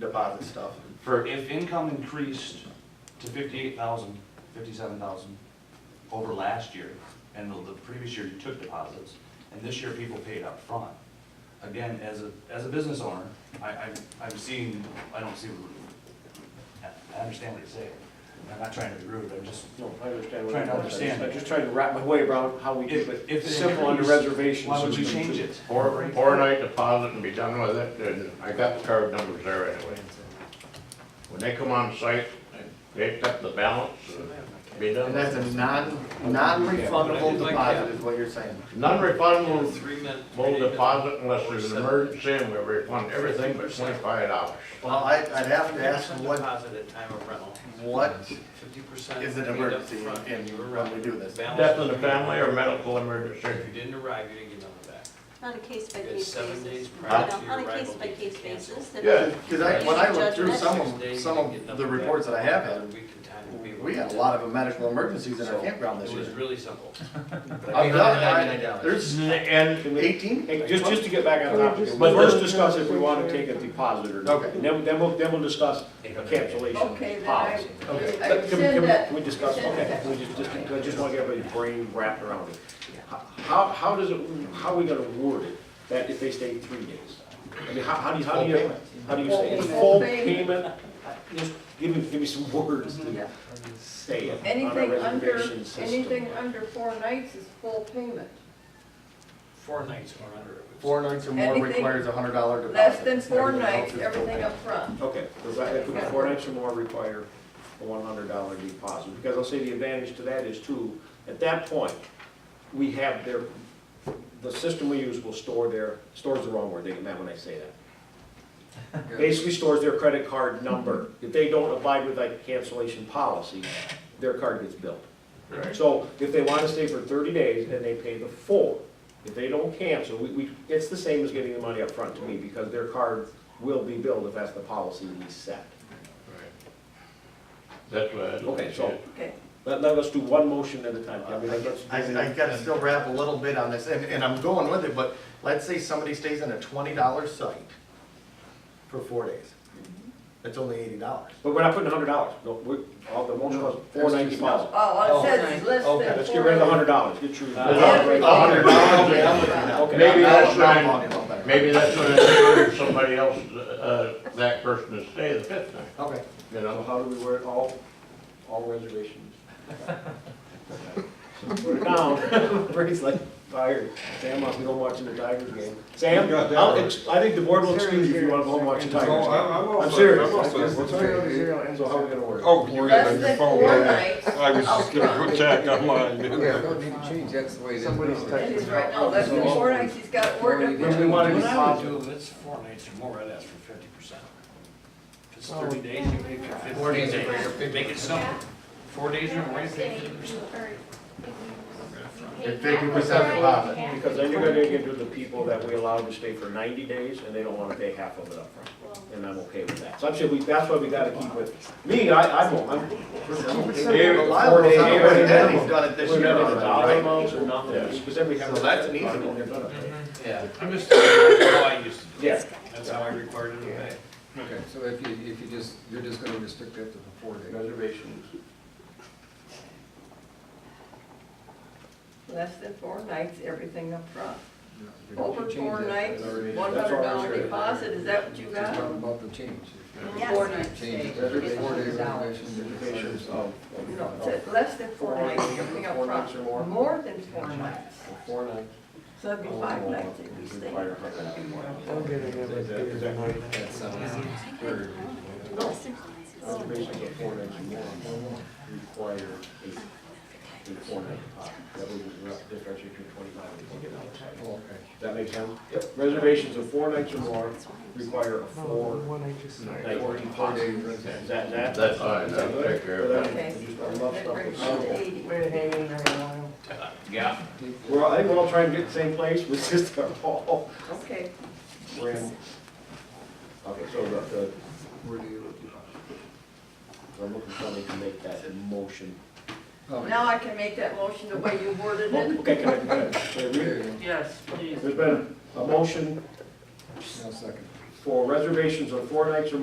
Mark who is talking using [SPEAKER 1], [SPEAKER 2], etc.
[SPEAKER 1] deposit stuff.
[SPEAKER 2] For if income increased to fifty-eight thousand, fifty-seven thousand over last year, and the, the previous year you took deposits, and this year people paid up front. Again, as a, as a business owner, I, I, I'm seeing, I don't see, what- I understand what you're saying. I'm not trying to be rude, I'm just,
[SPEAKER 3] No, I understand. what
[SPEAKER 2] Trying to
[SPEAKER 3] you're
[SPEAKER 2] understand.
[SPEAKER 3] I'm just trying to wrap my way around how we
[SPEAKER 2] If-
[SPEAKER 3] keep
[SPEAKER 2] if
[SPEAKER 3] it
[SPEAKER 2] it
[SPEAKER 3] simple on the
[SPEAKER 2] increased,
[SPEAKER 3] reservation.
[SPEAKER 2] why would you
[SPEAKER 3] system,
[SPEAKER 2] change
[SPEAKER 3] too.
[SPEAKER 2] it?
[SPEAKER 4] Or, or night deposit and be done with it, and I got the card numbers there anyway. When they come on site, they accept the balance, and be done.
[SPEAKER 1] And that's a non, non-refundable deposit is what you're saying.
[SPEAKER 4] Non-refundable,
[SPEAKER 5] Three minute.
[SPEAKER 4] full deposit unless there's an emergency, and we refund everything but twenty-five dollars.
[SPEAKER 1] Well, I, I'd have to ask them what,
[SPEAKER 5] Deposit at time of rental,
[SPEAKER 1] what
[SPEAKER 5] fifty percent.
[SPEAKER 1] is an emergency in, when we do this?
[SPEAKER 4] Death in the family or medical emergency.
[SPEAKER 5] If you didn't arrive, you didn't get none of that.
[SPEAKER 6] On a
[SPEAKER 5] It's
[SPEAKER 6] case-by-case
[SPEAKER 5] seven days
[SPEAKER 6] basis.
[SPEAKER 5] prior
[SPEAKER 6] No,
[SPEAKER 5] to your
[SPEAKER 6] On a
[SPEAKER 5] arrival,
[SPEAKER 6] case-by-case
[SPEAKER 5] you can cancel.
[SPEAKER 6] basis. that-
[SPEAKER 4] Yeah.
[SPEAKER 1] Because I, when I looked through some of,
[SPEAKER 5] Six days,
[SPEAKER 1] some
[SPEAKER 5] you didn't get
[SPEAKER 1] of
[SPEAKER 5] none
[SPEAKER 1] the
[SPEAKER 5] that.
[SPEAKER 1] reports that I have
[SPEAKER 5] Another
[SPEAKER 1] had,
[SPEAKER 5] week in time would be-
[SPEAKER 1] we had a lot of medical emergencies in our campground this
[SPEAKER 5] It was
[SPEAKER 1] year.
[SPEAKER 5] really simple.
[SPEAKER 1] I'm not- I- There's
[SPEAKER 4] And
[SPEAKER 1] eighteen?
[SPEAKER 3] Hey, Just, just to get back on topic,
[SPEAKER 4] But
[SPEAKER 3] first
[SPEAKER 4] the-
[SPEAKER 3] discuss if we want to take a deposit or not.
[SPEAKER 1] Okay.
[SPEAKER 3] And then, then we'll, then we'll discuss a
[SPEAKER 7] Okay,
[SPEAKER 3] cancellation
[SPEAKER 7] then I,
[SPEAKER 3] policy.
[SPEAKER 7] I
[SPEAKER 3] Can- can- can
[SPEAKER 7] rescind it.
[SPEAKER 3] We discuss,
[SPEAKER 7] Rescind
[SPEAKER 3] okay,
[SPEAKER 7] it.
[SPEAKER 3] we just, just, I just want to get everybody's brain wrapped around it. How, how does it, how are we gonna word it, that if they stay three days? I mean, how, how do you, how do you, how do you say, it?
[SPEAKER 7] Full
[SPEAKER 3] full
[SPEAKER 7] payment.
[SPEAKER 3] payment? Just give me, give me some words to
[SPEAKER 7] Yeah.
[SPEAKER 3] say it on our
[SPEAKER 7] Anything under,
[SPEAKER 3] reservation system.
[SPEAKER 7] anything under four nights is full payment.
[SPEAKER 5] Four nights or under. it was-
[SPEAKER 1] Four nights or more
[SPEAKER 7] Anything
[SPEAKER 1] requires a hundred dollar deposit.
[SPEAKER 7] Less than four
[SPEAKER 1] Everything else
[SPEAKER 7] nights,
[SPEAKER 1] is
[SPEAKER 7] everything
[SPEAKER 1] okay.
[SPEAKER 7] up front.
[SPEAKER 3] Okay, provided if we can four nights or more require a one hundred dollar deposit, because I'll say the advantage to that is too, at that point, we have their, the system we use will store their, stores the wrong word, they get mad when I say that. Basically stores their credit card number, if they don't abide with like cancellation policy, their card gets billed. So if they want to stay for thirty days, then they pay the full. If they don't cancel, we, we, it's the same as getting the money up front to me, because their card will be billed if that's the policy we set.
[SPEAKER 4] That's what. I'd like
[SPEAKER 3] Okay,
[SPEAKER 4] to
[SPEAKER 3] so-
[SPEAKER 4] see.
[SPEAKER 7] Okay.
[SPEAKER 3] Let, let us do one motion at a time. I mean, let's-
[SPEAKER 1] I, I gotta still wrap a little bit on this, and, and I'm going with it, but let's say somebody stays in a twenty dollar site for four days. That's only eighty dollars.
[SPEAKER 3] But we're not putting a hundred dollars, no, we, all the motion was four
[SPEAKER 1] There's
[SPEAKER 3] ninety
[SPEAKER 1] just
[SPEAKER 3] five.
[SPEAKER 7] Oh,
[SPEAKER 1] Oh,
[SPEAKER 7] it says it's less than four.
[SPEAKER 1] okay,
[SPEAKER 3] Let's get rid of the hundred dollars, Uh, get your.
[SPEAKER 7] Everything.
[SPEAKER 4] A hundred dollars,
[SPEAKER 1] Okay, I'm with you now.
[SPEAKER 3] Okay.
[SPEAKER 4] Maybe
[SPEAKER 1] Now
[SPEAKER 4] that's
[SPEAKER 1] I'm
[SPEAKER 4] not-
[SPEAKER 1] on it.
[SPEAKER 4] Maybe that's what encourages somebody else, uh, that person to stay the fifth night,
[SPEAKER 1] Okay.
[SPEAKER 4] you
[SPEAKER 3] So
[SPEAKER 4] know?
[SPEAKER 3] how do we word all, all reservations? Put it down, Brady's like, tired, Sam must go watching the Tigers game. Sam, I'll ex- I think the board will excuse you if you wanna go home watch the Tigers
[SPEAKER 8] No,
[SPEAKER 3] game.
[SPEAKER 8] I'm, I'm.
[SPEAKER 3] I'm serious. So how are we
[SPEAKER 8] serious.
[SPEAKER 3] gonna work?
[SPEAKER 8] Oh, you got
[SPEAKER 7] Less
[SPEAKER 8] on your
[SPEAKER 7] than
[SPEAKER 8] phone.
[SPEAKER 7] four nights.
[SPEAKER 8] I was just gonna put Jack on mine.
[SPEAKER 9] don't need to change, that's the way it is.
[SPEAKER 1] Somebody's
[SPEAKER 9] now.
[SPEAKER 7] And he's right now, less than four nights, he's got it worked
[SPEAKER 3] When
[SPEAKER 7] up.
[SPEAKER 3] we wanna
[SPEAKER 5] What I would
[SPEAKER 3] do,
[SPEAKER 5] do if it's four nights or more, I'd ask for fifty percent. If it's thirty days, you make your fifty.
[SPEAKER 9] Four days or
[SPEAKER 5] Make it simple. Four days or more, you pay fifty percent.
[SPEAKER 1] Fifty percent deposit.
[SPEAKER 3] because then you're gonna get into the people that we allowed to stay for ninety days, and they don't wanna pay half of it upfront, and I'm okay with that. So I'm sure we, that's why we gotta keep with, me, I, I'm, I'm.
[SPEAKER 1] Reliable,
[SPEAKER 3] Four-day-
[SPEAKER 1] He's done it this
[SPEAKER 3] We're
[SPEAKER 1] year
[SPEAKER 3] not in the dollar
[SPEAKER 1] already, right?
[SPEAKER 3] amounts or nothing, because then we have.
[SPEAKER 1] So that's an easy one.
[SPEAKER 5] Yeah. I'm just, that's how I used to do
[SPEAKER 3] Yeah.
[SPEAKER 5] it. That's how I required it to pay.
[SPEAKER 9] Okay, so if you, if you just, you're just gonna restrict that to the four days.
[SPEAKER 1] Reservations.
[SPEAKER 7] Less than four nights, everything up front.
[SPEAKER 9] Yeah, if you
[SPEAKER 7] Over
[SPEAKER 9] change
[SPEAKER 7] four
[SPEAKER 9] that,
[SPEAKER 7] nights,
[SPEAKER 9] that's already-
[SPEAKER 7] one
[SPEAKER 3] That's
[SPEAKER 7] hundred
[SPEAKER 3] already
[SPEAKER 7] dollar
[SPEAKER 3] straight.
[SPEAKER 7] deposit, is that what you
[SPEAKER 9] It's Just talking
[SPEAKER 7] got?
[SPEAKER 9] about the change. If you
[SPEAKER 7] Yes.
[SPEAKER 9] four nights, Change, it,
[SPEAKER 3] Yes.
[SPEAKER 9] it's four days reservation, then it's
[SPEAKER 3] Patients
[SPEAKER 9] already-
[SPEAKER 3] of-
[SPEAKER 7] No, it said less than four nights, everything up
[SPEAKER 3] Four nights or more? Oh,
[SPEAKER 7] front. More than four nights.
[SPEAKER 3] Four nights.
[SPEAKER 7] So that'd be five nights if you stay.
[SPEAKER 3] Require a hundred dollars more. Is that- is that right?
[SPEAKER 1] That's
[SPEAKER 9] That's, uh,
[SPEAKER 3] Reservations of four nights or more require a, a four night deposit. That would be the difference between twenty-five and forty dollars.
[SPEAKER 9] oh, okay.
[SPEAKER 3] That makes sense? Yep. Reservations of four nights or more require a four night deposit. Is that, that?
[SPEAKER 4] That's fine, that'll take care of it.
[SPEAKER 3] Okay. Just a rough
[SPEAKER 7] That
[SPEAKER 3] stuff.
[SPEAKER 7] brings you to eighty.
[SPEAKER 5] Yeah.
[SPEAKER 3] We're, all- I think we're all trying to get to the same place, we're just gonna all
[SPEAKER 7] Okay.
[SPEAKER 3] ram. Okay, so the, the,
[SPEAKER 9] Where do you?
[SPEAKER 3] I'm looking for somebody to make that motion.
[SPEAKER 9] oh,
[SPEAKER 7] Now I can make that motion the way you worded it.
[SPEAKER 3] Okay, can I, can I- can I read
[SPEAKER 9] there
[SPEAKER 3] it?
[SPEAKER 9] you go.
[SPEAKER 3] There's been a motion
[SPEAKER 9] Now second.
[SPEAKER 3] for reservations of four nights or more